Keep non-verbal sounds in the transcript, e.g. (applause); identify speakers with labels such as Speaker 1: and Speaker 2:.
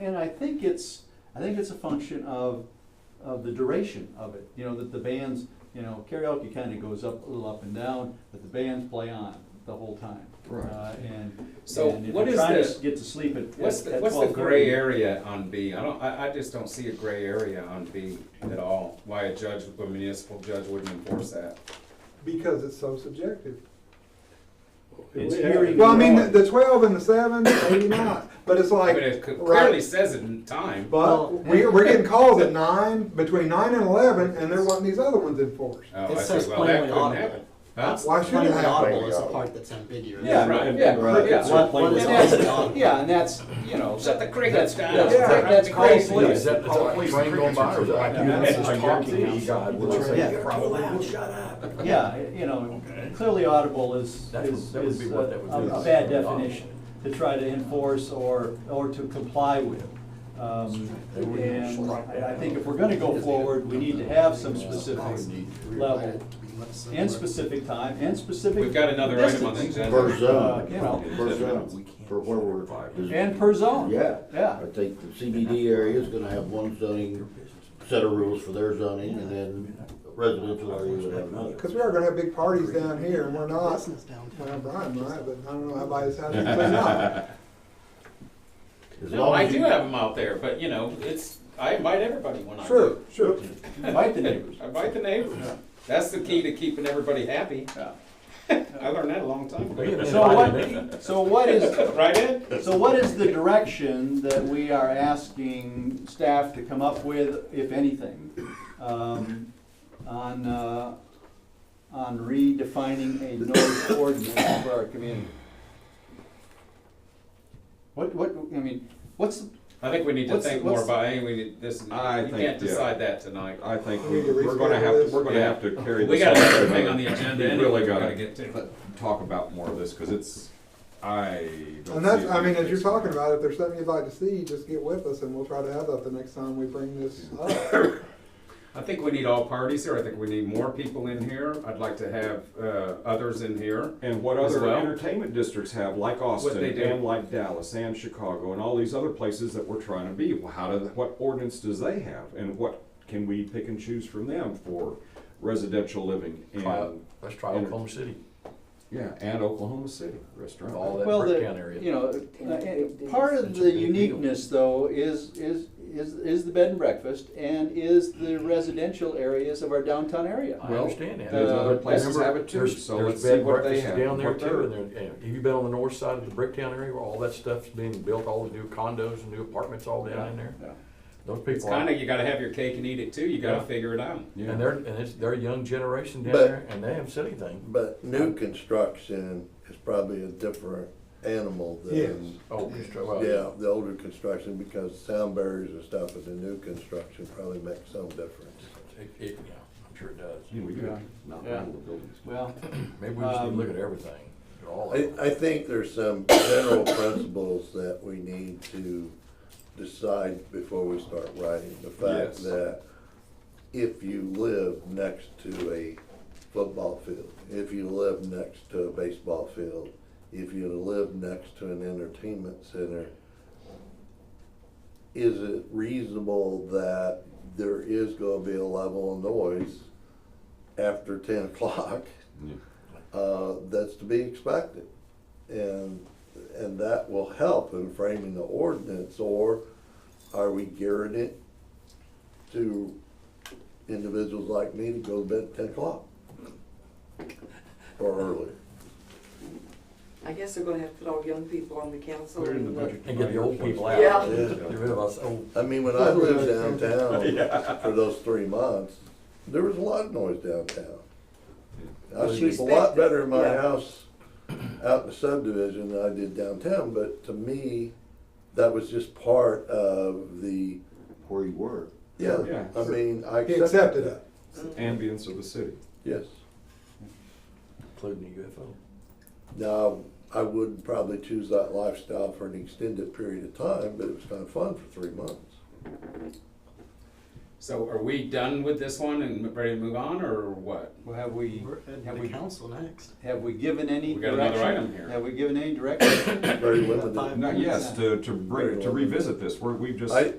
Speaker 1: And I think it's, I think it's a function of, of the duration of it, you know, that the bands, you know, karaoke kinda goes up, a little up and down, but the bands play on the whole time.
Speaker 2: Right.
Speaker 1: Uh, And,
Speaker 3: So
Speaker 1: and if
Speaker 3: what
Speaker 1: you're
Speaker 3: is
Speaker 1: trying
Speaker 3: the-
Speaker 1: to get to sleep at,
Speaker 3: What's the,
Speaker 1: at
Speaker 3: what's the gray
Speaker 1: 12:30,
Speaker 3: area on B? I don't, I, I just don't see a gray area on B at all. Why a judge, a municipal judge wouldn't enforce that.
Speaker 4: Because it's so subjective.
Speaker 1: It's hearing.
Speaker 4: Well, I mean, the-
Speaker 1: loss.
Speaker 4: the twelve and the seven, maybe not, but it's
Speaker 3: I
Speaker 4: like,
Speaker 3: mean, it c- clearly
Speaker 4: right?
Speaker 3: says it in time.
Speaker 1: Well-
Speaker 4: But we, we're getting calls at nine, between nine and eleven, and there wasn't these other ones enforced.
Speaker 3: Oh,
Speaker 5: It
Speaker 3: I
Speaker 5: says
Speaker 3: see. Well, that
Speaker 5: plainly
Speaker 3: couldn't
Speaker 5: audible.
Speaker 3: happen. Huh?
Speaker 4: Why should it
Speaker 5: Plainly
Speaker 4: happen?
Speaker 5: audible is the part that's ambiguous.
Speaker 1: Yeah,
Speaker 3: Right,
Speaker 1: and-
Speaker 3: yeah,
Speaker 1: and
Speaker 3: right,
Speaker 1: crickets
Speaker 3: yeah.
Speaker 1: are playing
Speaker 5: What is
Speaker 1: loud.
Speaker 5: audible?
Speaker 1: Yeah, and that's, you know.
Speaker 3: Shut the
Speaker 1: that's-
Speaker 3: crickets down.
Speaker 1: That's,
Speaker 4: Yeah.
Speaker 1: that's
Speaker 3: Yeah.
Speaker 1: called
Speaker 3: Yeah,
Speaker 1: police.
Speaker 6: that, that's a train going by or is that?
Speaker 1: Yeah, that's just
Speaker 6: talking
Speaker 1: Yeah.
Speaker 6: shut up.
Speaker 1: Yeah, you know, clearly audible is,
Speaker 6: That would-
Speaker 1: is,
Speaker 6: that would
Speaker 1: is
Speaker 6: be
Speaker 1: a
Speaker 6: what that would be.
Speaker 1: a bad definition to try to enforce or, or to comply with. Um, And I I think if we're gonna go forward, we need to have some specific level, and specific time, and specific
Speaker 3: We've got another item on the
Speaker 1: distance.
Speaker 3: agenda.
Speaker 7: Per
Speaker 1: Uh, you know.
Speaker 7: zone, per zone, for where we're. is-
Speaker 1: And per zone.
Speaker 7: Yeah.
Speaker 1: Yeah.
Speaker 7: I think the CBD area is gonna have one zoning, set of rules for their zoning, and then residential area would have another.
Speaker 4: Cause we are gonna have big parties down here, and we're
Speaker 8: Uh,
Speaker 4: not,
Speaker 5: Business downtown.
Speaker 4: well, Brian might, but I don't know how by his house,
Speaker 1: (laughs)
Speaker 4: he's not.
Speaker 7: As
Speaker 3: No,
Speaker 7: long
Speaker 3: I
Speaker 7: as
Speaker 3: do
Speaker 7: you-
Speaker 3: have them out there, but you know, it's, I invite everybody when I.
Speaker 4: Sure,
Speaker 3: do.
Speaker 4: sure.
Speaker 1: Invite the neighbors.
Speaker 3: I invite the neighbors. That's the key to keeping everybody happy.
Speaker 1: Yeah.
Speaker 3: (laughs) I learned that a long time ago.
Speaker 1: So what, so what is,
Speaker 3: Right, Ed?
Speaker 1: So what is the direction that we are asking staff to come up with, if anything, um, on, uh, on redefining a noise ordinance for our community? What, what, I mean, what's,
Speaker 3: I think we need to
Speaker 1: What's-
Speaker 3: think more
Speaker 1: what's-
Speaker 3: about, I think we need, this, you
Speaker 9: I think,
Speaker 3: can't
Speaker 9: yeah.
Speaker 3: decide that tonight.
Speaker 9: I think
Speaker 4: We
Speaker 9: we-
Speaker 4: need to
Speaker 9: we're gonna
Speaker 4: reschedule
Speaker 9: have,
Speaker 4: this.
Speaker 9: to. we're gonna
Speaker 3: Yeah.
Speaker 9: have to carry this.
Speaker 3: We got another
Speaker 9: on.
Speaker 3: thing on the agenda
Speaker 9: We
Speaker 3: anyway
Speaker 9: really
Speaker 3: we
Speaker 9: gotta
Speaker 3: gotta get to.
Speaker 9: Talk about more of this, cause it's, I don't.
Speaker 4: And
Speaker 9: see
Speaker 4: that's,
Speaker 9: it
Speaker 4: I mean, as
Speaker 9: being
Speaker 4: you're
Speaker 9: fixed.
Speaker 4: talking about, if there's something you'd like to see, just get with us, and we'll try to have that the next time we bring this up.
Speaker 3: I think we need all parties here. I think we need more people in here. I'd like to have, uh, others in here.
Speaker 9: And what
Speaker 3: as
Speaker 9: other
Speaker 3: well.
Speaker 9: entertainment districts have, like Austin,
Speaker 3: they do.
Speaker 9: and like Dallas, and Chicago, and all these other places that we're trying to be, well, how do, what ordinance does they have? And what can we pick and choose from them for residential living
Speaker 6: Trial-
Speaker 9: and,
Speaker 6: Let's try Oklahoma City,
Speaker 9: yeah, and Oklahoma City
Speaker 6: with
Speaker 9: restaurant.
Speaker 6: all that
Speaker 1: well,
Speaker 6: brick town
Speaker 1: the, you
Speaker 6: area.
Speaker 1: know, uh, uh, part of the uniqueness, though, is, is, is, is the bed and breakfast and is the residential areas of our downtown area.
Speaker 6: I understand that.
Speaker 9: There's other
Speaker 1: Uh,
Speaker 9: places
Speaker 6: Remember,
Speaker 9: have it too,
Speaker 6: there's-
Speaker 9: so
Speaker 6: there's
Speaker 9: let's see
Speaker 6: bed
Speaker 9: what they
Speaker 6: breakfasts
Speaker 9: have.
Speaker 6: Down there
Speaker 9: what they're-
Speaker 6: too, and there, and have you been on the north side of the Bricktown area where all that stuff's being built, all the new condos and new apartments all down in there?
Speaker 1: Yeah.
Speaker 6: Those
Speaker 3: It's
Speaker 6: people are,
Speaker 3: kinda, you gotta have your cake and eat it too. You gotta
Speaker 6: Yeah.
Speaker 3: figure it out.
Speaker 9: Yeah.
Speaker 6: and they're, and it's their young generation down
Speaker 7: But-
Speaker 6: there, and they haven't said anything.
Speaker 10: But new construction is probably a different animal than,
Speaker 6: Oh, constru- well,
Speaker 10: yeah, the older construction, because sound barriers and stuff in the new construction probably makes some difference.
Speaker 6: It, it, yeah, I'm sure it does.
Speaker 9: You know, we
Speaker 1: Yeah.
Speaker 9: could knock
Speaker 1: Yeah.
Speaker 9: all the buildings.
Speaker 1: Well,
Speaker 6: Maybe we just need to
Speaker 1: Um,
Speaker 6: look at everything, at all of
Speaker 10: I,
Speaker 6: it.
Speaker 10: I think there's some general principles that we need to decide before we start writing. The
Speaker 9: Yes.
Speaker 10: fact that if you live next to a football field, if you live next to a baseball field, if you live next to an entertainment center, is it reasonable that there is gonna be a level of noise after ten (laughs) o'clock?
Speaker 9: Yeah.
Speaker 10: Uh, that's to be expected. And, and that will help in framing the ordinance, or are we gearing it to individuals like me to go to bed at ten o'clock? Or earlier?
Speaker 8: I guess they're gonna have to put all young people on the council.
Speaker 9: Put it in
Speaker 8: and,
Speaker 9: the
Speaker 8: uh,
Speaker 9: budget.
Speaker 6: And get the old people out.
Speaker 8: Yeah.
Speaker 6: Get rid of us old
Speaker 10: I mean, when I lived downtown for those three months, there was a lot of noise downtown. I sleep a lot better in my
Speaker 8: Yeah.
Speaker 10: house out in the subdivision than I did downtown, but to me, that was just part of the,
Speaker 7: where you were.
Speaker 10: yeah,
Speaker 9: Yeah.
Speaker 10: I mean, I
Speaker 4: He accepted
Speaker 10: accepted
Speaker 4: it.
Speaker 10: that,
Speaker 9: Ambience of the city.
Speaker 10: yes.
Speaker 6: including the UFO.
Speaker 10: Now, I wouldn't probably choose that lifestyle for an extended period of time, but it was kind of fun for three months.
Speaker 3: So are we done with this one and ready to move on, or what?
Speaker 1: Well, have we,
Speaker 2: We're heading
Speaker 1: have
Speaker 2: to
Speaker 1: we,
Speaker 2: council next.
Speaker 1: have we given any
Speaker 3: We
Speaker 1: direction?
Speaker 3: got another item here.
Speaker 1: Have we given any direction?
Speaker 2: (coughs)
Speaker 10: very limited.
Speaker 9: Now, yes, to, to bring, to revisit this, we're, we've just.
Speaker 10: I-